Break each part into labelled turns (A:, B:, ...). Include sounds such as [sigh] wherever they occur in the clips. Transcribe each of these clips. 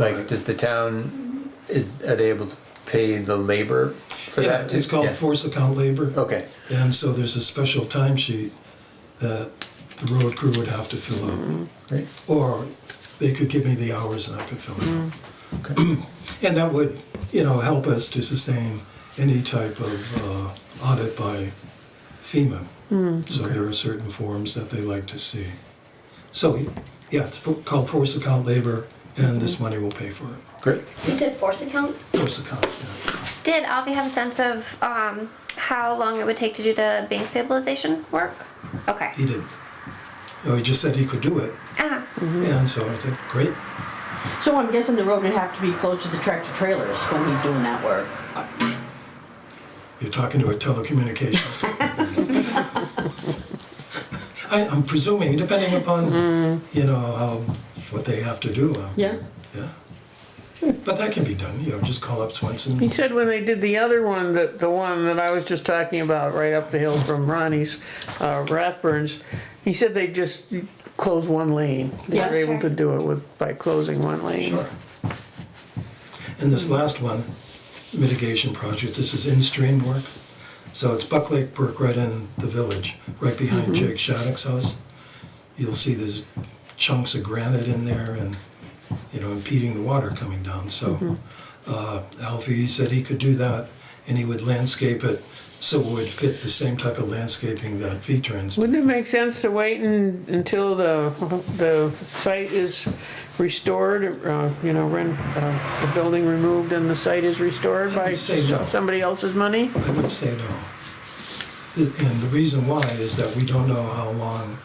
A: Like, does the town, is, are they able to pay the labor for
B: Yeah,
A: that?
B: it's called
A: Yeah.
B: force account labor.
A: Okay,
B: And so there's a special timesheet that the road crew would have to fill out.
A: great,
B: Or they could give me the hours and I could fill it
A: Mm-hmm.
B: out.
A: okay,
B: And that would, you know, help us to sustain any type of uh, audit by FEMA.
A: Mm.
B: So there are certain forms that they like to see. So, yeah, it's fo- called force account labor and
A: Mm-hmm.
B: this money will pay for it.
A: great.
C: You said force account?
B: Force account, yeah.
D: Did Avi have a sense of um, how long it would take to do the bank stabilization work? Okay.
B: He did. No, he just said he could do it. Mm-hmm.
D: Ah,
B: And so I said, great.
E: So I'm guessing the road would have to be close to the tractor trailers when he's doing that work.
B: You're talking to a telecommunications. [laughs] I, I'm presuming, depending upon, you know, how, what they have to do. um,
E: Yeah.
B: Yeah. But that can be done, you know, just call up Swenson.
F: He said when they did the other one, that the one that I was just talking about, right up the hill from Ronnie's, uh, Rathburns, he said they just closed one lane. They
E: Yeah,
F: were able to do it with, by closing one lane.
B: Sure. And this last one, mitigation project, this is in-stream work. So it's Buck Lake Brook right in the village, right behind Jake Shattuck's house. You'll see there's chunks of granite in there and, you know, impeding the water coming down. So uh, Alfie said he could do that and he would landscape it so it would fit the same type of landscaping that V-Trans
F: Wouldn't it make sense to wait un until the, the site is restored, uh, you know, when, uh, the building removed and the site is restored by
B: I'd say no.
F: somebody else's money?
B: I would say no. The- And the reason why is that we don't know how long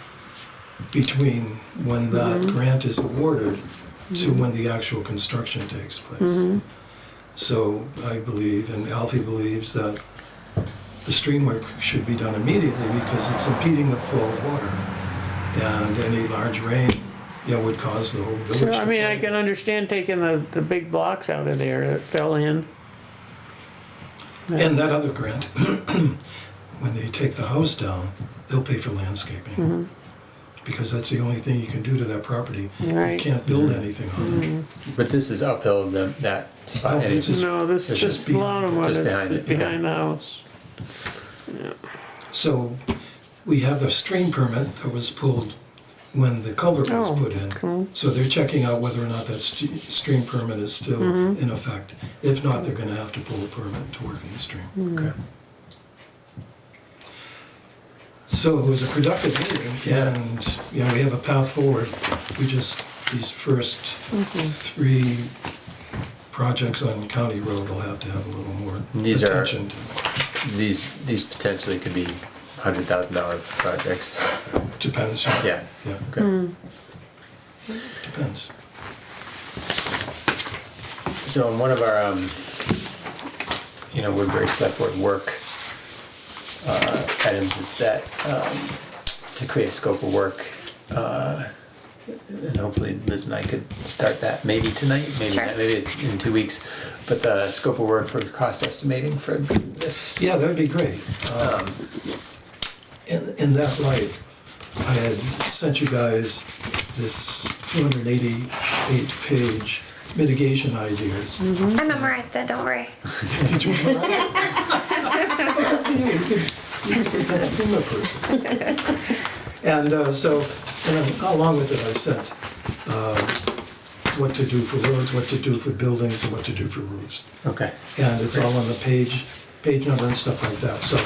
B: between when
F: Mm-hmm.
B: that grant is awarded to when the actual construction takes
F: Mm-hmm.
B: place. So I believe, and Alfie believes, that the stream work should be done immediately because it's impeding the flow of water. And any large rain, you know, would cause the whole village.
F: So,
B: to
F: I mean, I
B: flood.
F: can understand taking the, the big blocks out of there that fell in.
B: And that other grant, [clears throat] when they take the house down, they'll pay for
F: Mm-hmm.
B: landscaping. Because that's the only thing you can do to that property. You
F: Right. Mm-hmm.
B: can't build anything on it.
A: But this is uphill, the, that
B: Oh,
A: spot, and it's
B: this is-
F: No, this
B: It's
F: is
B: just
F: just bottom one,
A: just behind
F: it's
A: it, yeah.
F: behind the house.
B: So we have a stream permit that was pulled when the culvert was
F: Oh,
B: put in. So they're checking out whether or not that st- stream permit is still
F: Mm-hmm.
B: in effect. If not, they're gonna have to pull a permit to work in the
F: Mm-hmm.
B: stream.
A: okay.
B: So it was a productive meeting, and, you know, we have a path forward. We just, these first
A: Mm-hmm.
B: three projects on County Road will have to have a little more
A: These are-
B: attention.
A: These, these potentially could be hundred thousand dollar projects,
B: Depends.
A: yeah,
B: Yeah,
A: okay.
B: depends.
A: So in one of our, um, you know, Woodbury Select Board work, uh, items is that, um, to create a scope of work, uh, and hopefully Liz and I could start that maybe tonight, maybe,
D: Sure.
A: not, maybe it's in two weeks, but the scope of work for cost estimating for this.
B: Yeah, that'd be great. Um, In, in that light, I had sent you guys this 288-page mitigation ideas.
A: Mm-hmm.
D: I memorized it. Don't worry.
B: Did you remember? You could- you could be a humor person. And uh, so, and along with it, I sent uh, what to do for roads, what to do for buildings, and what to do for roofs.
A: Okay,
B: And it's all on the page, page number and stuff like that. So,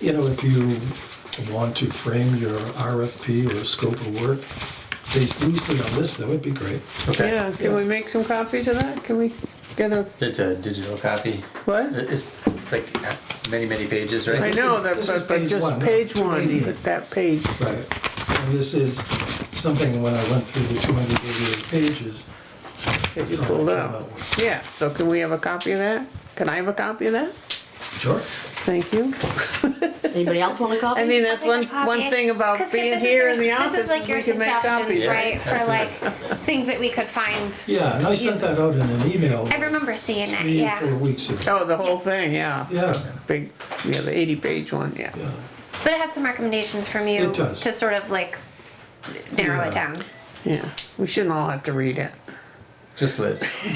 B: you know, if you want to frame your RFP or scope of work based loosely on this, that would be great.
A: okay.
F: Yeah, can we make some copies of that? Can we get a,
A: It's a digital copy.
F: what?
A: It's, it's like many, many pages,
F: I
A: right?
F: know, that,
B: this is
F: but but
B: page one,
F: just page one,
B: 288.
F: but that page.
B: Right, and this is something, when I went through the 288 pages.
F: that you
B: that's all I
F: pulled
B: came
F: out.
B: up with.
F: Yeah, so can we have a copy of that? Can I have a copy of that?
B: Sure.
F: Thank you.
E: Anybody else want a copy?
F: I mean, that's
D: I
F: one,
D: think a
F: one
D: copy-
F: thing about
D: 'cause if
F: being
D: this
F: here
D: is
F: in the
D: your-
F: office,
D: This is like your
F: we can make
D: suggestions,
F: copies.
D: right, for like
A: absolutely.
D: things that we could find.
B: Yeah, and I sent
D: uses.
B: that out in an email.
D: I remember seeing that,
B: Three,
D: yeah.
B: four weeks ago.
F: Oh, the whole thing, yeah.
B: Yeah,
F: Big, yeah, the eighty page one, yeah.
B: yeah.
D: But it has some recommendations from you
B: It does.
D: to sort of like narrow
B: Yeah.
D: it down.
F: Yeah, we shouldn't all have to read it.
A: Just Liz.